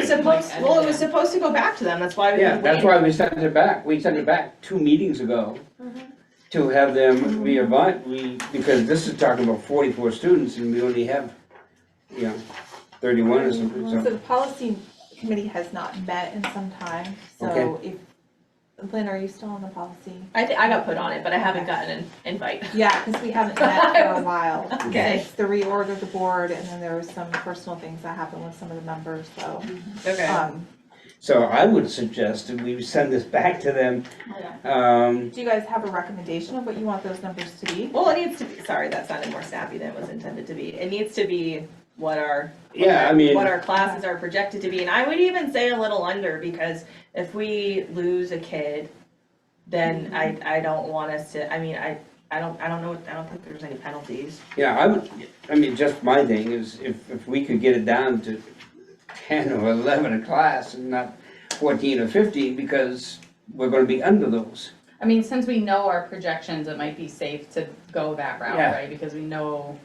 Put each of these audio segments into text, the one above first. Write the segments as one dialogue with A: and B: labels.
A: was
B: Right.
A: supposed,
B: Like, I
A: well, it
B: don't
A: was
B: know.
A: supposed to go back to them, that's why we.
C: Yeah, that's why we sent it back, we sent it back two meetings ago
A: Mm-hmm.
C: to have them reevaluate, we, because this is talking about forty-four students and we only have, you know, thirty-one or something,
D: So
C: so.
D: the policy committee has not met in some time, so
C: Okay.
D: if, Lynn, are you still on the policy?
A: I thi- I got put on it, but I haven't gotten an invite.
D: Yeah, because we haven't met for a while.
A: Okay.
D: Since the reorg of the board, and then there were some personal things that happened with some of the members, so,
A: Uh,
D: um,
C: So I would suggest that we send this back to them, um,
D: do you guys have a recommendation of what you want those numbers to be?
A: Well, it needs to be, sorry, that sounded more snappy than it was intended to be. It needs to be what our. what
C: yeah,
A: our-
C: I mean,
A: What our classes are projected to be, and I would even say a little under, because if we lose a kid, then I,
B: Mm-hmm.
A: I don't want us to, I mean, I, I don't, I don't know, I don't think there's any penalties.
C: yeah, I would, I mean, just my thing is if, if we could get it down to ten or eleven a class and not fourteen or fifteen, because we're gonna be under those.
B: I mean, since we know our projections, it might be safe to go that route,
C: Yeah.
B: right? Because we know.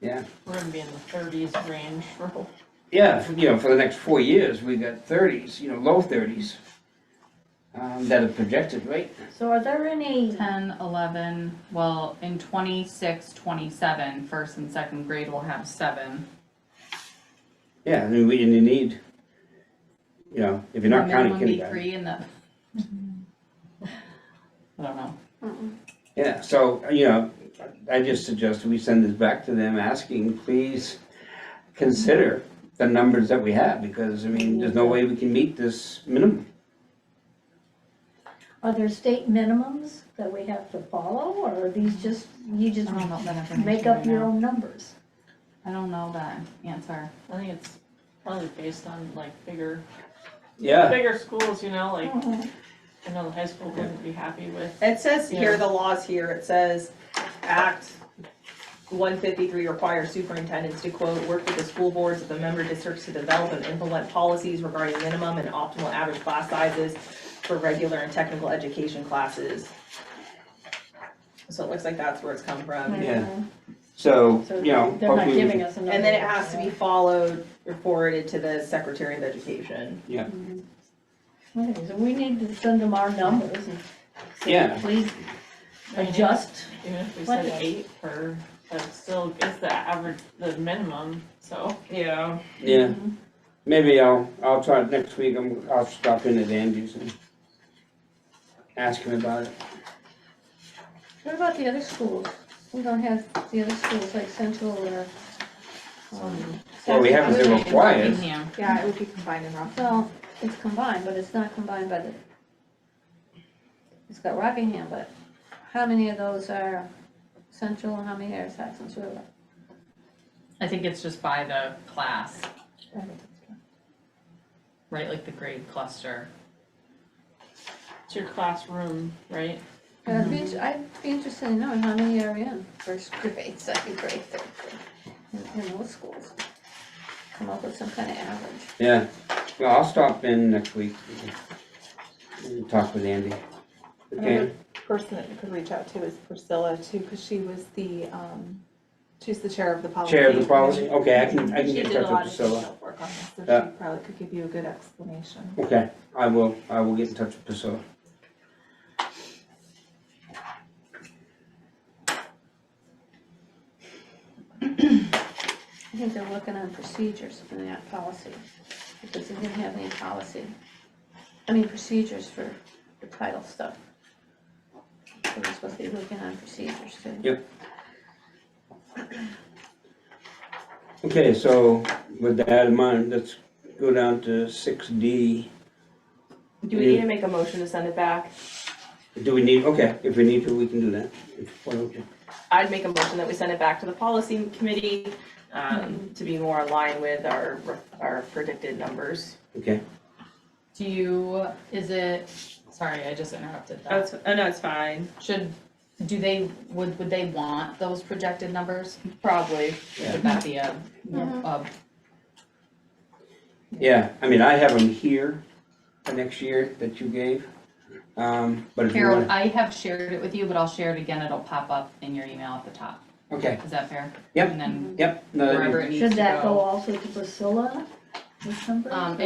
C: Yeah.
B: Mm-hmm. We're gonna be in the thirties range for.
C: Yeah, f- you know, for the next four years, we got thirties, you know, low thirties. Um, that are projected, right?
E: So are there any,
B: Ten, eleven, well, in twenty-six, twenty-seven, first and second grade will have seven.
C: Yeah, and we, and you need, you know, if you're not counting
B: Minimum
C: kindergarten.
B: be three and the. I don't know.
C: Yeah, so, you know, I just suggest we send this back to them asking, please consider the numbers that we have, because, I mean, there's no way we can meet this minimum.
E: are there state minimums that we have to follow, or are these just, you just
B: I don't know that information
E: make up
B: right
E: your
B: now.
E: own numbers?
B: I don't know that answer.
F: I think it's probably based on like bigger,
C: Yeah,
F: bigger schools, you know, like,
E: Mhm.
F: I know the high school wouldn't be happy with.
A: It says here,
F: Yeah.
A: the laws here, it says, Act one fifty-three requires superintendents to quote, work with the school boards of the member districts to develop and implement policies regarding minimum and optimal average class sizes for regular and technical education classes. So it looks like that's where it's come from.
C: yeah, so,
E: So
C: you know,
E: they're not
C: hopefully,
E: giving
C: we-
E: us another.
A: And then it has to be followed, reported to the Secretary of Education.
E: Okay, So we need to send them our numbers and say,
C: Yeah.
E: please adjust.
F: Even if we
E: What
F: said
E: is-
F: eight per, that's still, it's the average, the minimum, so.
A: Yeah.
C: yeah. Maybe I'll, I'll try, it next week, I'm, I'll stop in at Andy's and ask him about it.
E: What about the other schools? We don't have the other schools like Central or, um,
C: Well, we haven't been
B: Right,
C: required.
B: Buckingham.
D: Yeah, it would be combined in Rockland.
E: well, it's combined, but it's not combined by the, it's got Rockingham, but how many of those are Central and how many are Saxon's River?
B: I think it's just by the class, right, like the grade cluster.
F: It's your classroom, right?
E: Yeah, I'd be, int- I'd be interested in knowing how many are in first grade, second grade, third grade, in, in those schools. Come up with some kind of average.
C: Yeah, well, I'll stop in next week and talk with Andy. Okay,
D: Another person that you could reach out to is Priscilla too, because she was the, um, she's the chair of the policy.
C: chair of the policy, okay, I can, I can
D: Oh, She
C: get in
D: did a
C: touch
D: lot
C: with
D: of
C: Priscilla.
D: detailed work on this, so
C: Yeah.
D: she probably could give you a good explanation.
C: Okay, I will, I will get in touch with Priscilla.
E: I think they're working on procedures and not policy, because they didn't have any policy. I mean, procedures for the title stuff. So They're supposed to be working on procedures too.
C: Okay, so with that in mind, let's go down to six D.
A: Do we need to make a motion to send it back?
C: Do we need, okay, if we need to, we can do that. If- why don't you?
A: I'd make a motion that we send it back to the policy committee, um, to be more aligned with our, our predicted numbers.
C: Okay,
B: Do you, is it, sorry, I just interrupted that.
A: That's, oh, no, it's fine.
B: Should, do they, would, would they want those projected numbers? Probably.
C: Yeah.
B: Would that be a,
C: Mm-hmm.
B: a,
C: yeah, I mean, I have them here for next year that you gave. Um, but if you
B: Harold,
C: want,
B: I have shared it with you, but I'll share it again, it'll pop up in your email at the top.
C: okay,
B: Is that fair?
C: Yep.
B: And then
C: yep, no,
B: wherever
C: that'd
B: it needs
E: Should
B: to
E: that go
B: go.
E: also to Priscilla? Um,